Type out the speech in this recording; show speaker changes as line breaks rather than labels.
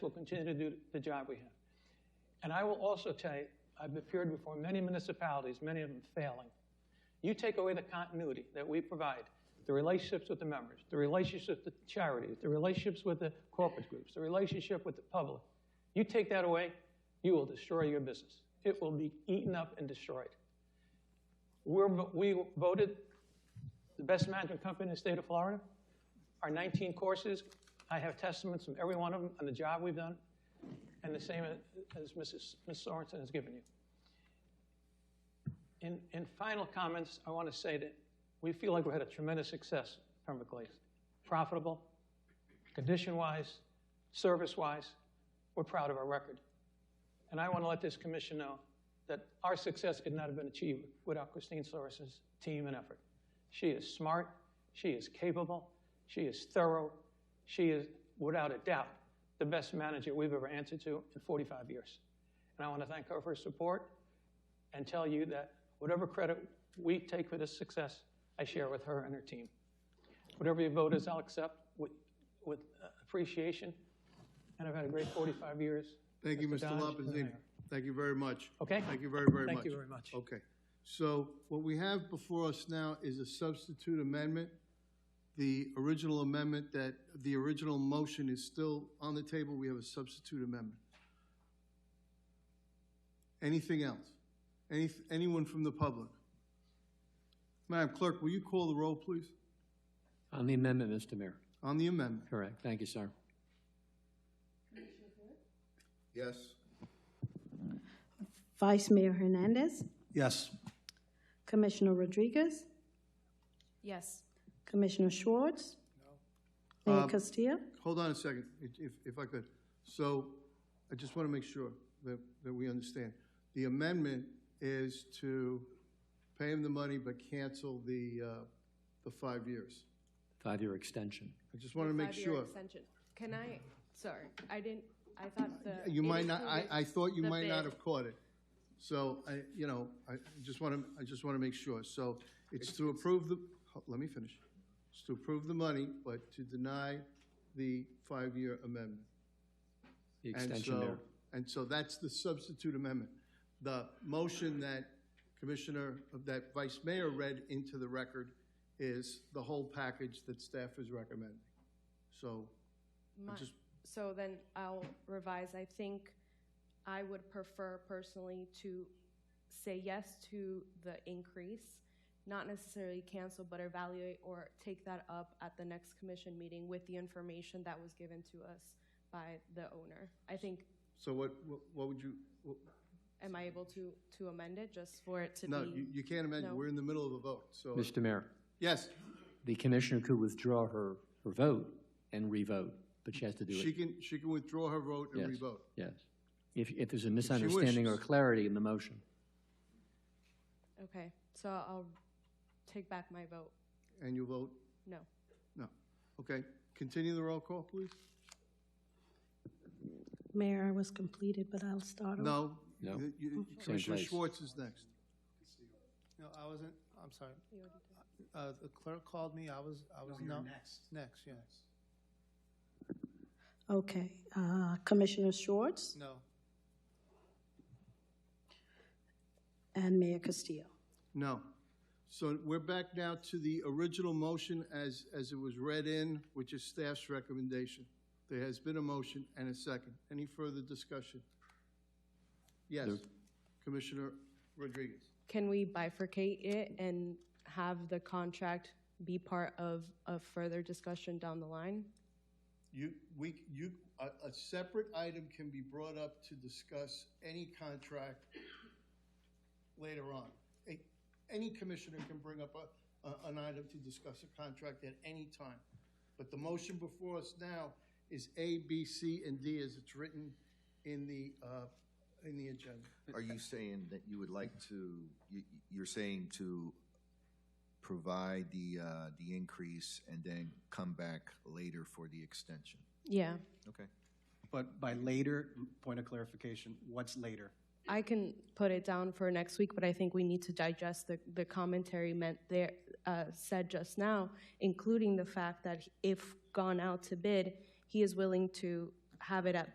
We'll continue to do the job we have. And I will also tell you, I've appeared before many municipalities, many of them failing. You take away the continuity that we provide, the relationships with the members, the relationships with the charities, the relationships with the corporate groups, the relationship with the public. You take that away, you will destroy your business. It will be eaten up and destroyed. We're, we voted the best management company in the state of Florida. Our 19 courses, I have testaments from every one of them on the job we've done, and the same as Mrs. Ms. Sorensen has given you. In, in final comments, I want to say that we feel like we had a tremendous success from Glaze. Profitable, condition-wise, service-wise, we're proud of our record. And I want to let this commission know that our success could not have been achieved without Christine Sorensen's team and effort. She is smart, she is capable, she is thorough, she is, without a doubt, the best manager we've ever answered to in 45 years. And I want to thank her for her support and tell you that whatever credit we take for this success, I share with her and her team. Whatever your vote is, I'll accept with, with uh, appreciation, and I've had a great 45 years.
Thank you,
Mr.
Mr.
Dodge, and the
Lopazine.
mayor.
Thank you very much.
Okay.
Thank you very, very much.
Thank you very much.
Okay. So what we have before us now is a substitute amendment. The original amendment that, the original motion is still on the table. We have a substitute amendment. Anything else? Any, anyone from the public? Madam Clerk, will you call the roll, please,
On the amendment, Mr. Mayor.
on the amendment?
Correct. Thank you, sir.
Yes.
Vice Mayor Hernandez,
Yes.
Commissioner Rodriguez,
Yes.
Commissioner Schwartz, Mayor
Um,
Castillo.
Hold on a second, if- if, if I could. So I just want to make sure that, that we understand. The amendment is to pay him the money but cancel the, uh, the five years.
Five-year extension.
I just want to make
Five-year
sure.
extension. Can I, sorry, I didn't, I thought the.
You
it
might not, I,
included-
I thought you
the
might not
bid.
have caught it. So I, you know, I just want to, I just want to make sure. So it's to approve the, ho- let me finish. It's to approve the money, but to deny the five-year amendment.
The
And
extension,
so,
Mayor.
and so that's the substitute amendment. The motion that Commissioner, that Vice Mayor read into the record is the whole package that staff is recommending. So,
My-
just-
So then I'll revise. I think I would prefer personally to say yes to the increase, not necessarily cancel, but evaluate or take that up at the next commission meeting with the information that was given to us by the owner. I think,
so what, what- what would you, what-
am I able to, to amend it just for it to be?
no, you, you can't imagine,
no.
we're in the middle of a vote, so,
Mr. Mayor,
yes,
the commissioner could withdraw her, her vote and revote, but she has to do
she
it.
can, she can withdraw her vote and
Yes.
revote.
Yes. If, if there's a misunderstanding or
wishes.
clarity in the motion.
Okay, so I'll take back my vote.
And you vote,
No.
no. Okay, continue the roll call, please?
Mayor, I was completed, but I'll start. over.
No?
No.
You- you-
Same
Commissioner
place.
Schwartz is next.
No, I wasn't, I'm sorry. Uh, the clerk called me, I was, I was, no. Next. Next, yes.
Okay, uh, Commissioner Schwartz
No,
and Mayor Castillo.
No. So we're back now to the original motion as, as it was read in, which is staff's recommendation. There has been a motion and a second. Any further discussion? Yes, Commissioner Rodriguez.
Can we bifurcate it and have the contract be part of a further discussion down the line?
You, we, you, a, a separate item can be brought up to discuss any contract later on. A- Any commissioner can bring up a, a- an item to discuss a contract at any time. But the motion before us now is A, B, C, and D as it's written in the, uh, in the agenda.
Are you saying that you would like to, you, you're saying to provide the, uh, the increase and then come back later for the extension?
Yeah,
Okay.
But by later, point of clarification, what's later?
I can put it down for next week, but I think we need to digest the, the commentary meant there, uh, said just now, including the fact that if gone out to bid, he is willing to have it at